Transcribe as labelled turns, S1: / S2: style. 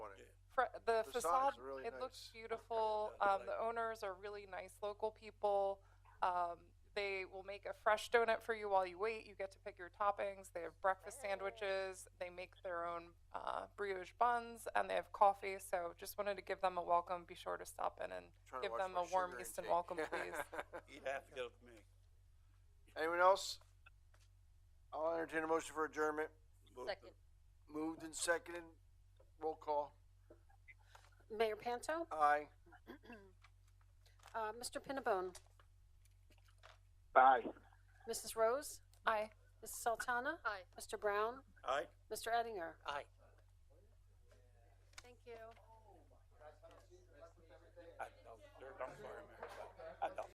S1: fr- the
S2: The sign's
S1: facade,
S2: really
S1: it looks
S2: nice.
S1: beautiful.
S3: Yeah,
S1: Um, the owners are really nice local people. Um, they will make a fresh donut for you while you wait. You get to pick your toppings. They have breakfast sandwiches. They make their own uh, brioche buns and they have coffee. So just wanted to give them a welcome. Be sure to stop in and
S2: Trying to
S1: give
S2: watch
S1: them
S2: my
S1: a warm
S2: sugar
S1: Easton
S2: intake.
S1: welcome, please.
S3: You'd have to go with me.
S2: Anyone else? I'll entertain a motion for adjournment.
S3: Both of
S4: Second.
S2: Moved and seconded. Roll call.
S4: Mayor Panto?
S2: Aye.
S4: Uh, Mr. Pinnabone?
S2: Aye.
S4: Mrs. Rose?
S1: Aye.
S4: Mrs. Sultana? Aye. Mr. Brown?
S3: Aye.
S4: Mr. Ettinger?
S5: Aye.